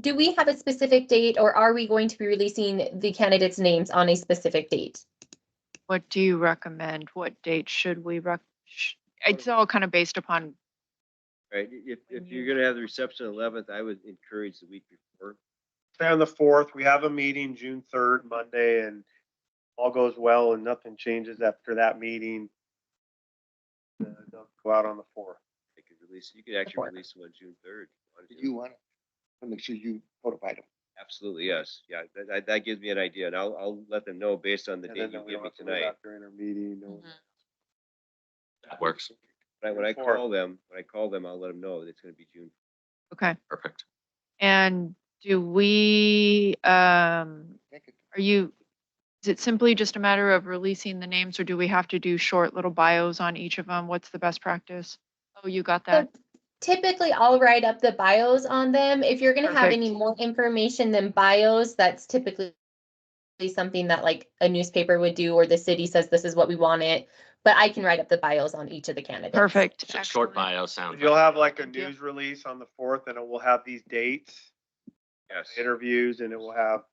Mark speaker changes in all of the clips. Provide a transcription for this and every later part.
Speaker 1: do we have a specific date or are we going to be releasing the candidates' names on a specific date?
Speaker 2: What do you recommend? What date should we rec? sh- It's all kind of based upon,
Speaker 3: Right, i- if, if you're
Speaker 2: Mm-hmm.
Speaker 3: gonna have the reception eleventh, I would encourage the week before.
Speaker 4: Say on the fourth, we have a meeting June third, Monday, and all goes well and nothing changes after that meeting. uh, They'll go out on the fourth.
Speaker 3: They could release, you could actually
Speaker 1: Before.
Speaker 3: release one June third.
Speaker 5: Did you want to make sure you notified them?
Speaker 3: Absolutely, yes, yeah, that- that, that gives me an idea, and I'll, I'll let them know based on the
Speaker 4: And then
Speaker 3: date you
Speaker 4: we
Speaker 3: give me
Speaker 4: don't have to worry
Speaker 3: tonight.
Speaker 4: about During our meeting. no-
Speaker 2: Mm-hmm.
Speaker 6: Works.
Speaker 3: Right, when I
Speaker 4: Before.
Speaker 3: call them, when I call them, I'll let them know that it's gonna be June.
Speaker 2: okay.
Speaker 6: Perfect.
Speaker 2: And do we, um,
Speaker 5: Thank you.
Speaker 2: are you, is it simply just a matter of releasing the names or do we have to do short little bios on each of them? What's the best practice? Oh, you got
Speaker 1: So
Speaker 2: that?
Speaker 1: Typically, I'll write up the bios on them. If you're gonna have
Speaker 2: Perfect.
Speaker 1: any more information than bios, that's typically something that like a newspaper would do or the city says this is what we want it. But I can write up the bios on each of the candidates.
Speaker 2: Perfect.
Speaker 6: Sh- Short
Speaker 2: excellent.
Speaker 6: bio sounds.
Speaker 4: You'll have like a
Speaker 2: Thank you.
Speaker 4: news release on the fourth and it will have these dates,
Speaker 3: Yes,
Speaker 4: interviews, and it will have.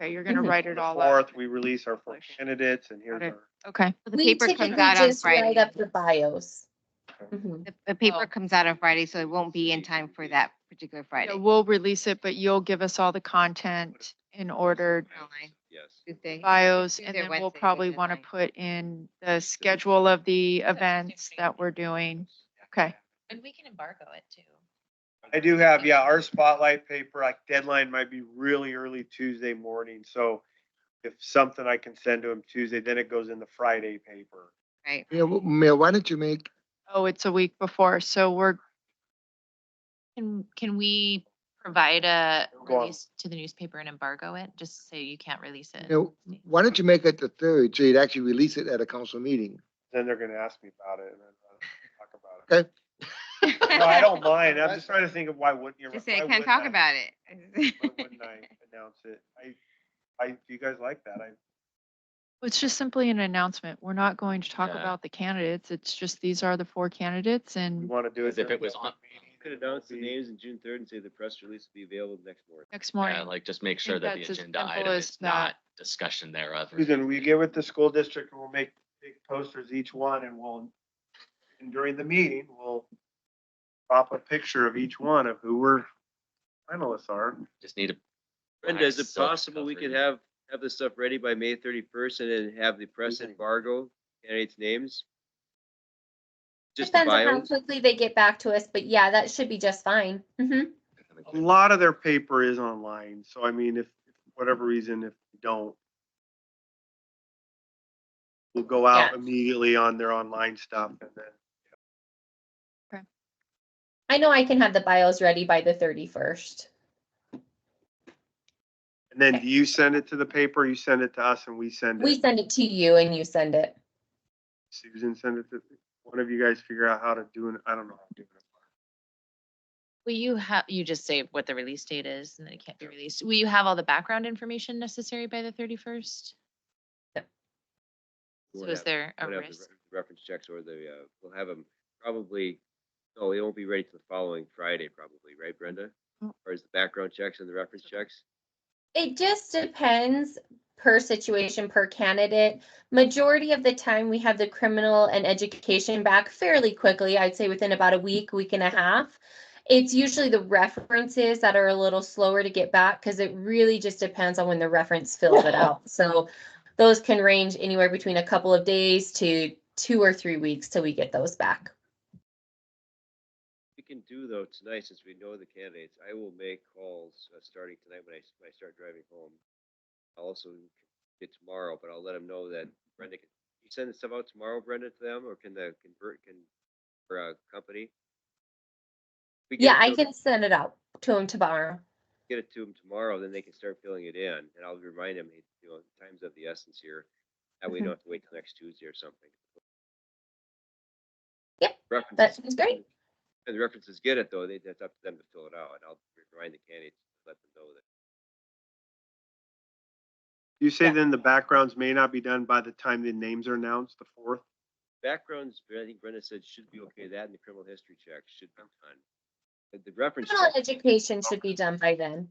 Speaker 2: Okay, you're gonna
Speaker 1: Mhm.
Speaker 2: write
Speaker 4: on
Speaker 2: it
Speaker 4: the
Speaker 2: all
Speaker 4: Fourth,
Speaker 2: up.
Speaker 4: we release our four
Speaker 2: Publish.
Speaker 4: candidates and here's
Speaker 2: Got it.
Speaker 4: our.
Speaker 2: Okay,
Speaker 7: The
Speaker 1: We
Speaker 7: paper comes
Speaker 1: typically
Speaker 7: out on
Speaker 1: just write
Speaker 7: Friday.
Speaker 1: up the bios. Mhm.
Speaker 7: The- The paper
Speaker 2: Oh.
Speaker 7: comes out on Friday, so it won't be in time for that particular
Speaker 2: Yeah,
Speaker 7: Friday.
Speaker 2: we'll release it, but you'll give us all the content in order,
Speaker 7: Online,
Speaker 3: yes.
Speaker 7: Tuesday.
Speaker 2: bios, and
Speaker 7: Tuesday or
Speaker 2: then we'll
Speaker 7: Wednesday,
Speaker 2: probably
Speaker 7: good
Speaker 2: want to
Speaker 7: night.
Speaker 2: put in the schedule of the events that we're doing. Okay.
Speaker 8: And we can embargo it too.
Speaker 4: I do have, yeah, our spotlight paper, like deadline might be really early Tuesday morning, so if something I can send to him Tuesday, then it goes in the Friday paper.
Speaker 7: Right.
Speaker 5: Yeah, well, Mayor, why don't you make,
Speaker 2: Oh, it's a week before, so we're,
Speaker 8: Can, can we provide a
Speaker 4: Go on.
Speaker 8: release to the newspaper and embargo it, just so you can't release
Speaker 1: Uh,
Speaker 8: it?
Speaker 5: you know, why don't you make it the third, so you'd actually release it at a council meeting?
Speaker 4: Then they're gonna ask me about it and then I'll talk about it.
Speaker 5: Okay.
Speaker 4: No, I don't mind, I'm just trying to think of why wouldn't you?
Speaker 7: Just say,
Speaker 4: why
Speaker 7: can't
Speaker 4: wouldn't
Speaker 7: talk
Speaker 4: I-
Speaker 7: about it.
Speaker 4: Why wouldn't I announce it? I, I, do you guys like that? I,
Speaker 2: it's just simply an announcement. We're not going to talk
Speaker 6: Yeah.
Speaker 2: about the candidates. It's just these are the four candidates
Speaker 4: you
Speaker 2: and
Speaker 4: wanna do it?
Speaker 6: As if
Speaker 4: during
Speaker 6: it was
Speaker 4: the
Speaker 6: on-
Speaker 4: meeting,
Speaker 3: You Could announce the
Speaker 4: it'll be-
Speaker 3: names in June third and say the press release will be available next morning.
Speaker 2: next
Speaker 6: Yeah,
Speaker 2: morning.
Speaker 6: like just make
Speaker 2: think
Speaker 6: sure that
Speaker 2: that's
Speaker 6: the
Speaker 2: as
Speaker 6: agenda
Speaker 2: simple
Speaker 6: item
Speaker 2: as
Speaker 6: is
Speaker 2: that.
Speaker 6: not discussion thereof. or
Speaker 4: Susan, will you get with the school district and we'll make big posters each one and we'll, and during the meeting, we'll pop a picture of each one of who we're finalists are.
Speaker 6: Just need to.
Speaker 3: Brenda, is it
Speaker 6: Silk
Speaker 3: possible we could
Speaker 6: covered.
Speaker 3: have, have this stuff ready by May thirty-first and then have the press
Speaker 5: Mhm.
Speaker 3: embargo candidates' names? Just the
Speaker 1: Depends on how
Speaker 3: bios?
Speaker 1: quickly they get back to us, but yeah, that should be just fine. Mhm.
Speaker 4: A lot of their paper is online, so I mean, if, if whatever reason, if you don't, we'll go out
Speaker 1: Yeah.
Speaker 4: immediately on their online stuff and then
Speaker 1: I know I can have the bios ready by the thirty-first.
Speaker 4: And then do you send it to the paper, you send it to us and we send
Speaker 1: We
Speaker 4: it,
Speaker 1: send it to you and you send it.
Speaker 4: Susan, send it to, one of you guys figure out how to do it, I don't know. how to do it.
Speaker 8: Will you have, you just say what the release date is and then it can't be released. Will you have all the background information necessary by the thirty-first?
Speaker 3: We'll
Speaker 8: So is
Speaker 3: have-
Speaker 8: there a
Speaker 3: we'll have the
Speaker 8: risk?
Speaker 3: re- Reference checks or the, uh, we'll have them probably, no, they won't be ready till the following Friday probably, right, Brenda?
Speaker 2: Mm.
Speaker 3: Or is the background checks and the reference checks?
Speaker 1: It just depends per situation, per candidate. Majority of the time, we have the criminal and education back fairly quickly. I'd say within about a week, week and a half. It's usually the references that are a little slower to get back because it really just depends on when the reference fills it out. So those can range anywhere between a couple of days to two or three weeks till we get those back.
Speaker 3: We can do though tonight, since we know the candidates, I will make calls, uh, starting tonight when I, s- when I start driving home. I'll also get tomorrow, but I'll let them know that Brenda, can you send the stuff out tomorrow, Brenda, to them, or can the convert, can, or, uh, company? We get
Speaker 1: Yeah,
Speaker 3: it
Speaker 1: I
Speaker 3: to-
Speaker 1: can send it out to them tomorrow.
Speaker 3: Get it to them tomorrow, then they can start filling it in, and I'll remind them, hey, you know, time's of the essence here. That way you
Speaker 2: Mhm.
Speaker 3: don't have to wait till next Tuesday or something.
Speaker 1: Yep,
Speaker 3: References-
Speaker 1: that sounds great.
Speaker 3: And the references get it though, they, that's up to them to fill it out, and I'll remind the candidates, let them know that.
Speaker 4: You say
Speaker 1: Yeah.
Speaker 4: then the backgrounds may not be done by the time the names are announced, the fourth?
Speaker 3: Backgrounds, I think Brenda said should be okay, that and the criminal history check should be done. But The reference,
Speaker 1: Criminal
Speaker 3: check-
Speaker 1: education should be done by then.